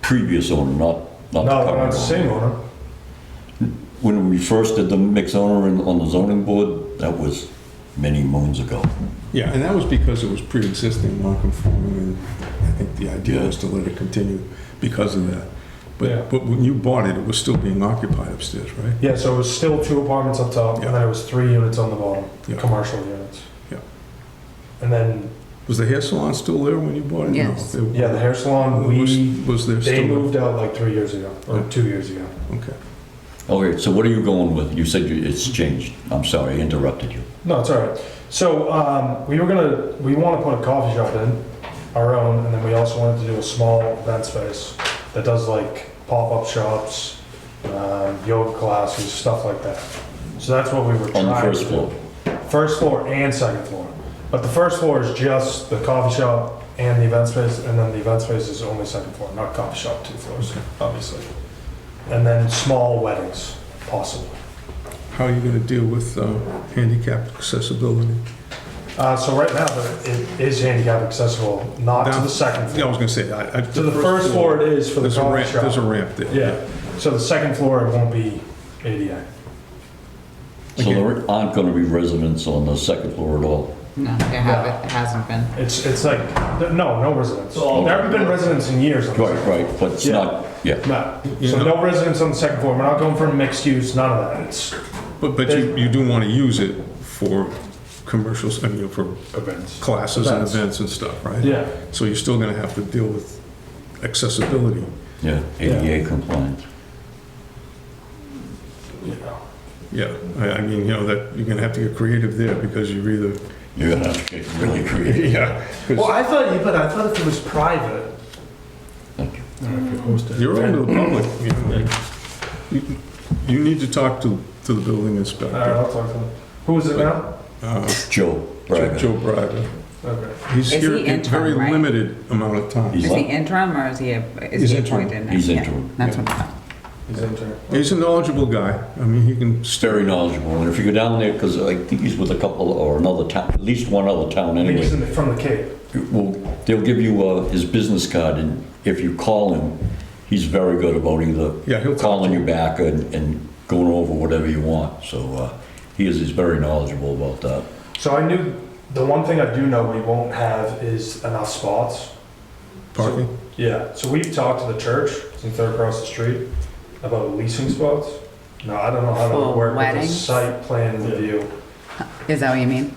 previous owner, not, not the No, not current the owner. same owner. When we first did the mix owner in- on the zoning board, that was many moons ago. Yeah, and that was because it was pre-existing non-conforming, and I think the idea was to let it continue because of that. Yeah. But, but when you bought it, it was still being occupied upstairs, right? Yeah, so it was still two apartments up top, and then it was three units on the bottom, Yeah. commercial units. Yeah. And then, Was the hair salon still there when you bought it? No, Yes. it- yeah, the hair salon, Was, we, was there still? they moved out like three years ago, or two years ago. Okay. Okay, Oh, so what are you going with? You said you- it's changed. I'm sorry, I interrupted you. No, it's all right. So um, we were gonna, we want to put a coffee shop in, our own, and then we also wanted to do a small event space that does like pop-up shops, um, yoga classes, stuff like that. So that's what we were On the trying to first floor. do. First floor and second floor. But the first floor is just the coffee shop and the event space, and then the event space is only second floor, not coffee shop, two floors, obviously. And then small weddings, possibly. How are you gonna deal with uh, handicap accessibility? Uh, so right now, the- it is handicap accessible, not to Down- the second Yeah, I floor. was gonna say, I, I. To the first floor it is for the There's a coffee ramp, there's a shop. ramp there. Yeah, so the second floor, it won't be ADA. So there aren't going to be residents on the second floor at all. No, there haven't, hasn't been. It's, it's like, th- no, no residents. There haven't been residents in years. on the Right, second right, but it's Yeah. not, yeah. floor. No, You so know- no residents on the second floor, we're not going for mixed use, none of that, it's But, but you, you do wanna use it for commercials, I mean, for events. classes and Events. events and stuff, right? Yeah, So you're still gonna have to deal with accessibility. Yeah, ADA compliant. you know. Yeah, I, I mean, you know, that, you're gonna have to get creative there because you're either, You're going to have to get really creative. yeah. 'cause Well, I thought you, but I thought if it was private, You're open to the public, you know. You- You need to talk to, to the building All right, inspector, I'll talk to them. Who is it now? uh, Joe Joe Braga. Joe Braga. Okay. He's Is here he in very interim, right? limited amount of time. He's Is he what? interim or is he, a- He's is he interim. appointed now? He's Yeah, interim, That's yeah. what I thought. He's intern. He's a knowledgeable guy, I mean, he can It's very knowledgeable, and if you go down there, because I think he's with a couple, or another town, at least one other town I think he's anyway. in the- from the Cape. Well, they'll give you uh, his business card, and if you call him, he's very good about Yeah, either he'll talk calling to you back and, and going over whatever you want, so uh, he is, he's very knowledgeable about that. So I knew, the one thing I do know we won't have is enough spots. parking. Yeah, so we've talked to the church, since they're across the street, about leasing spots. Now, I don't know how to For work with a weddings? site plan review, Is that what you mean?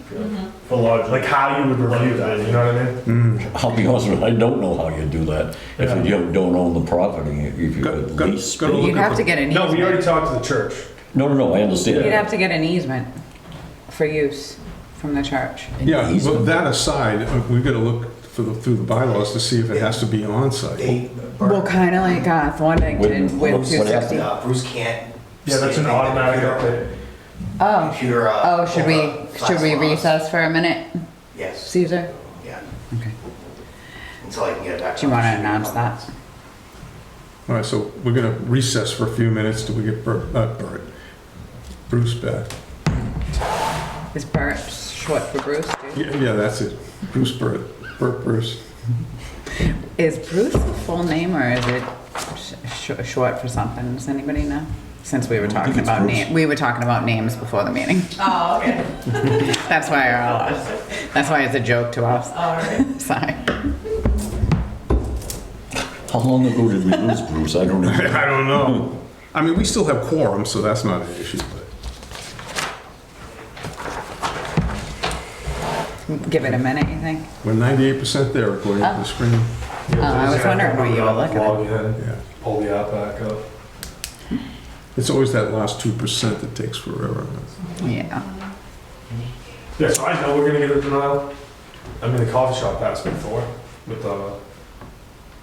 For large, like how you would review that, you know what I mean? Mm. I'll be honest with you, I don't know how you do that, Yeah. if you don't own the property, if you Go- could go- lease. go space. to look You'd at have the- to get an No, we already easement. talked to the church. No, no, no, I understand. You'd have to get an easement for use from the church. Yeah, well, Easement. that aside, uh, we gotta look for the, through the bylaws to see if it has to be on-site. they, Well, kind of like uh, Thorndiketon Wouldn't- with what's- what happened? 260. uh, Bruce can't. Yeah, that's an say anything. automatic Computer- update. Oh, Computer. uh, oh, should we, over should we class laws. recess for a minute, Yes, Caesar? yeah, Okay. until I can get it back. Do you want to announce that? All right, so we're gonna recess for a few minutes till we get Bert, not Bert, Bruce back. Is Bert short for Bruce? too? Yeah, yeah, that's it. Bruce Burt, Burt Bruce. Is Bruce a full name or is it sh- sh- short for something? Does anybody know? Since we were I think talking it's about Bruce. name, we were talking about names before the meeting. Oh, okay, That's why you're all, that's why it's a joke to us. all right. Sorry. How long ago did we lose Bruce? I don't know. I don't know. I mean, we still have quorum, so that's not an issue, but Give it a minute, you think? we're ninety-eight percent there according to the screen. Yeah, Oh, so I was he's gonna wondering what you were looking at. Log in, Yeah. pull the app back up. It's always that last two percent that takes forever. Yeah. Yeah, so I know we're gonna get a denial. I mean, the coffee shop passed before with, uh,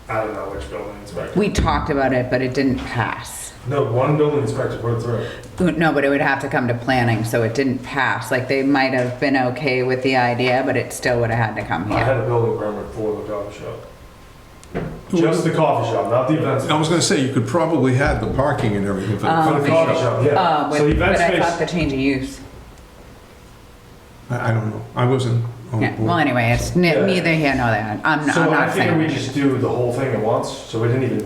I don't know which building inspector. We talked about it, but it didn't pass. No, one building inspector put it through. No, but it would have to come to planning, so it didn't pass. Like, they might have been okay with the idea, but it still would have had to come I had here. a building permit for the coffee shop. Who- Just the coffee shop, not the event I was gonna say, you could probably have the parking and everything for the Um, For the coffee coffee shop. shop, yeah. Uh, So with- event But I thought space, the change of use. I, I don't know. I wasn't on Yeah, well, board. anyway, it's ne- Yeah. neither here nor there. I'm I'm so I not figured we saying. just do the whole thing at once, so we didn't even